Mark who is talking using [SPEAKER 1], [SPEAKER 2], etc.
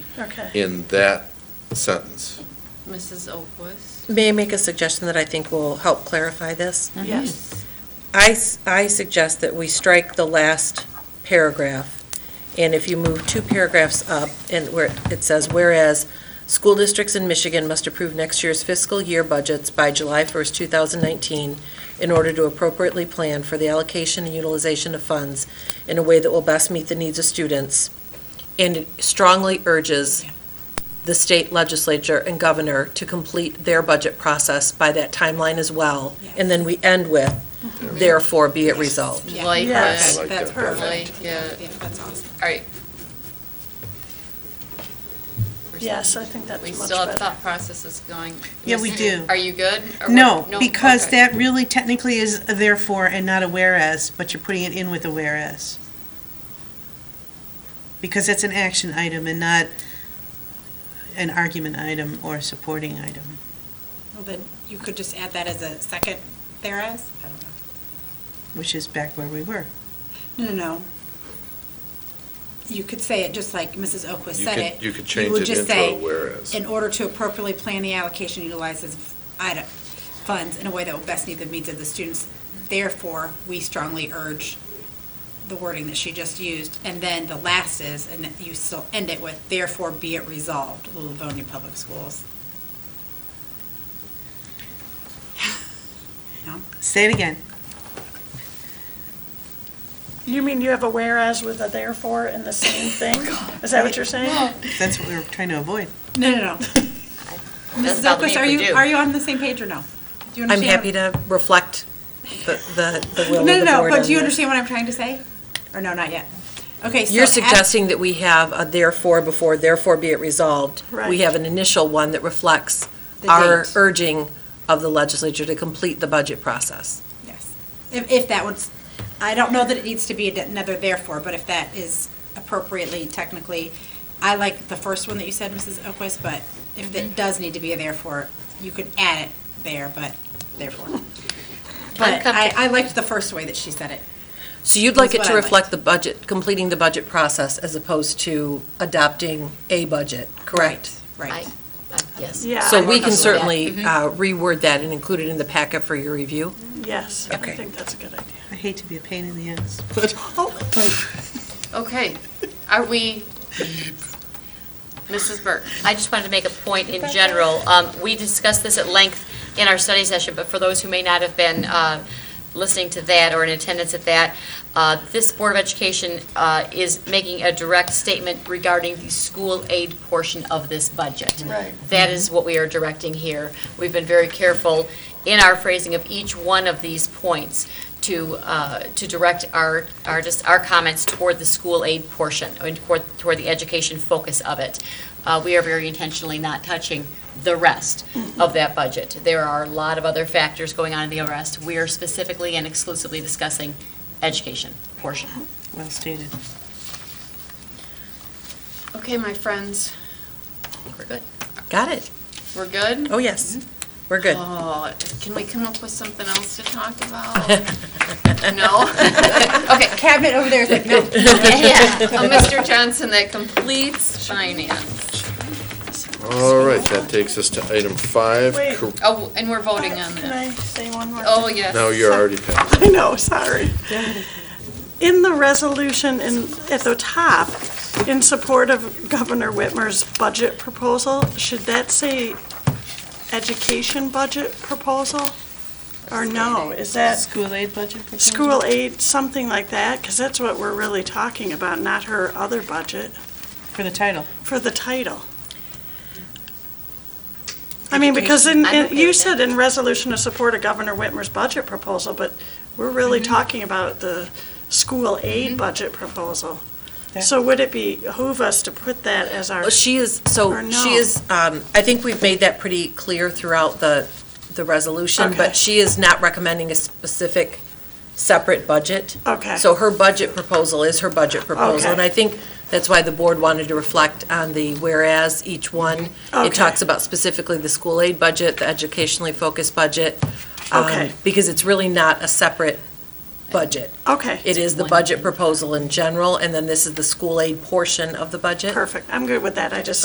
[SPEAKER 1] Okay.
[SPEAKER 2] in that sentence.
[SPEAKER 3] Mrs. Oakwood?
[SPEAKER 4] May I make a suggestion that I think will help clarify this?
[SPEAKER 3] Yes.
[SPEAKER 4] I, s- I suggest that we strike the last paragraph, and if you move two paragraphs up, and where it says, whereas school districts in Michigan must approve next year's fiscal year budgets by July 1st, 2019, in order to appropriately plan for the allocation and utilization of funds in a way that will best meet the needs of students, and it strongly urges the state legislature and governor to complete their budget process by that timeline as well. And then we end with, therefore be it resolved.
[SPEAKER 5] Yeah.
[SPEAKER 3] Like
[SPEAKER 1] Yes.
[SPEAKER 3] it.
[SPEAKER 2] Like
[SPEAKER 5] That's
[SPEAKER 2] that
[SPEAKER 5] perfect.
[SPEAKER 3] Like it.
[SPEAKER 5] Yeah, that's awesome.
[SPEAKER 3] All right.
[SPEAKER 1] Yes, I think that's
[SPEAKER 3] We
[SPEAKER 1] much
[SPEAKER 3] still have
[SPEAKER 1] better.
[SPEAKER 3] thought processes going.
[SPEAKER 6] Yeah, we
[SPEAKER 3] Mrs.
[SPEAKER 6] do.
[SPEAKER 3] Are you good? Or
[SPEAKER 6] No,
[SPEAKER 3] what?
[SPEAKER 6] because
[SPEAKER 3] okay.
[SPEAKER 6] that really technically is a therefore and not a whereas, but you're putting it in with a whereas. Because it's an action item and not an argument item or a supporting item.
[SPEAKER 5] Well, then you could just add that as a second thereas? I don't know.
[SPEAKER 6] which is back where we were.
[SPEAKER 5] No, no, no. You could say it just like Mrs. Oakwith
[SPEAKER 2] You
[SPEAKER 5] said
[SPEAKER 2] could-
[SPEAKER 5] it.
[SPEAKER 2] you could change
[SPEAKER 5] would
[SPEAKER 2] it
[SPEAKER 5] just
[SPEAKER 2] into a
[SPEAKER 5] say,
[SPEAKER 2] whereas.
[SPEAKER 5] In order to appropriately plan the allocation utilizes item, funds in a way that will best meet the needs of the students. Therefore, we strongly urge the wording that she just used. And then the last is, and you still end it with, therefore be it resolved, the Livonia Public Schools. No?
[SPEAKER 6] Say it again.
[SPEAKER 1] You mean you have a whereas with a therefore in the same thing? Is that what you're saying?
[SPEAKER 6] That's what we were trying to avoid.
[SPEAKER 5] No, no, no. Mrs.
[SPEAKER 3] Doesn't bother
[SPEAKER 5] Oakwith,
[SPEAKER 3] me if
[SPEAKER 5] are
[SPEAKER 3] we
[SPEAKER 5] you,
[SPEAKER 3] do.
[SPEAKER 5] are you on the same page or no? Do you
[SPEAKER 4] I'm
[SPEAKER 5] understand?
[SPEAKER 4] happy to reflect the, the the will
[SPEAKER 5] No,
[SPEAKER 4] of the
[SPEAKER 5] no,
[SPEAKER 4] board.
[SPEAKER 5] no,
[SPEAKER 4] on
[SPEAKER 5] but do you
[SPEAKER 4] that.
[SPEAKER 5] understand what I'm trying to say? Or no, not yet? Okay, so.
[SPEAKER 4] You're
[SPEAKER 5] at-
[SPEAKER 4] suggesting that we have a therefore before therefore be it resolved.
[SPEAKER 1] Right.
[SPEAKER 4] We have an initial one that reflects
[SPEAKER 5] The
[SPEAKER 4] our
[SPEAKER 5] date.
[SPEAKER 4] urging of the legislature to complete the budget process.
[SPEAKER 5] Yes. If, if that was, I don't know that it needs to be another therefore, but if that is appropriately technically, I like the first one that you said, Mrs. Oakwest, but if it does need to be a therefore, you could add it there, but therefore. But I, I liked the first way that she said it.
[SPEAKER 4] So you'd like it
[SPEAKER 5] That's
[SPEAKER 4] to
[SPEAKER 5] what I
[SPEAKER 4] reflect
[SPEAKER 5] liked.
[SPEAKER 4] the budget, completing the budget process as opposed to adopting a budget, correct?
[SPEAKER 5] Right.
[SPEAKER 3] Yes.
[SPEAKER 1] Yeah.
[SPEAKER 4] So
[SPEAKER 1] I'm
[SPEAKER 4] we can
[SPEAKER 1] comfortable with that.
[SPEAKER 4] certainly uh, reword that and include it in the packet for your review.
[SPEAKER 1] Yes, I
[SPEAKER 4] Okay.
[SPEAKER 1] think that's a good idea.
[SPEAKER 6] I hate to be a pain in the ass.
[SPEAKER 3] Okay. Are we, Mrs. Burke?
[SPEAKER 7] I just wanted to make a point in general. Um, We discussed this at length in our study session, but for those who may not have been uh, listening to that or in attendance at that, uh, this Board of Education uh, is making a direct statement regarding the school aid portion of this budget.
[SPEAKER 1] Right.
[SPEAKER 7] That is what we are directing here. We've been very careful in our phrasing of each one of these points to, uh, to direct our, our, just our comments toward the school aid portion, and toward, toward the education focus of it. Uh, We are very intentionally not touching the rest of that budget. There are a lot of other factors going on in the rest. We are specifically and exclusively discussing education portion.
[SPEAKER 6] Well stated.
[SPEAKER 3] Okay, my friends,
[SPEAKER 7] We're good.
[SPEAKER 4] Got it?
[SPEAKER 3] we're good?
[SPEAKER 4] Oh, yes. We're good.
[SPEAKER 3] Oh, can we come up with something else to talk about? No? Okay.
[SPEAKER 5] Cabinet over there is like, no.
[SPEAKER 3] Yeah, Oh, Mr. Johnson, that completes finance.
[SPEAKER 2] All right, that takes us to item five.
[SPEAKER 1] Wait.
[SPEAKER 2] cor-
[SPEAKER 3] Oh, and we're voting on
[SPEAKER 1] Can
[SPEAKER 3] that.
[SPEAKER 1] I say one more?
[SPEAKER 3] Oh,
[SPEAKER 1] thing?
[SPEAKER 3] yes.
[SPEAKER 2] No, you're already passed.
[SPEAKER 1] I know, sorry. In the resolution in, at the top, in support of Governor Whitmer's budget proposal, should that say education budget proposal? Or no, is that
[SPEAKER 6] School aid budget proposal?
[SPEAKER 1] school aid, something like that? Because that's what we're really talking about, not her other budget,
[SPEAKER 6] For the title.
[SPEAKER 1] for the title. I mean, because in,
[SPEAKER 3] Education, I'm
[SPEAKER 1] in-
[SPEAKER 3] okay
[SPEAKER 1] you
[SPEAKER 3] with
[SPEAKER 1] said in resolution to support of Governor Whitmer's budget proposal, but we're really
[SPEAKER 4] Mm-hmm.
[SPEAKER 1] talking about the school aid budget proposal. So would it be behoove us to put that as our,
[SPEAKER 4] Well, She is,
[SPEAKER 1] Or
[SPEAKER 4] so
[SPEAKER 1] no.
[SPEAKER 4] she is, um, I think we've made that pretty clear throughout the, the resolution,
[SPEAKER 1] Okay.
[SPEAKER 4] but she is not recommending a specific separate budget.
[SPEAKER 1] Okay.
[SPEAKER 4] So her budget proposal is her budget proposal.
[SPEAKER 1] Okay.
[SPEAKER 4] And I think that's why the board wanted to reflect on the whereas each one.
[SPEAKER 1] Okay.
[SPEAKER 4] It talks about specifically the school aid budget, the educationally focused budget. um,
[SPEAKER 1] Okay.
[SPEAKER 4] Because it's really not a separate budget.
[SPEAKER 1] okay,
[SPEAKER 4] It is the budget proposal in general, and then this is the school aid portion of the budget.
[SPEAKER 1] perfect. I'm good with that. I just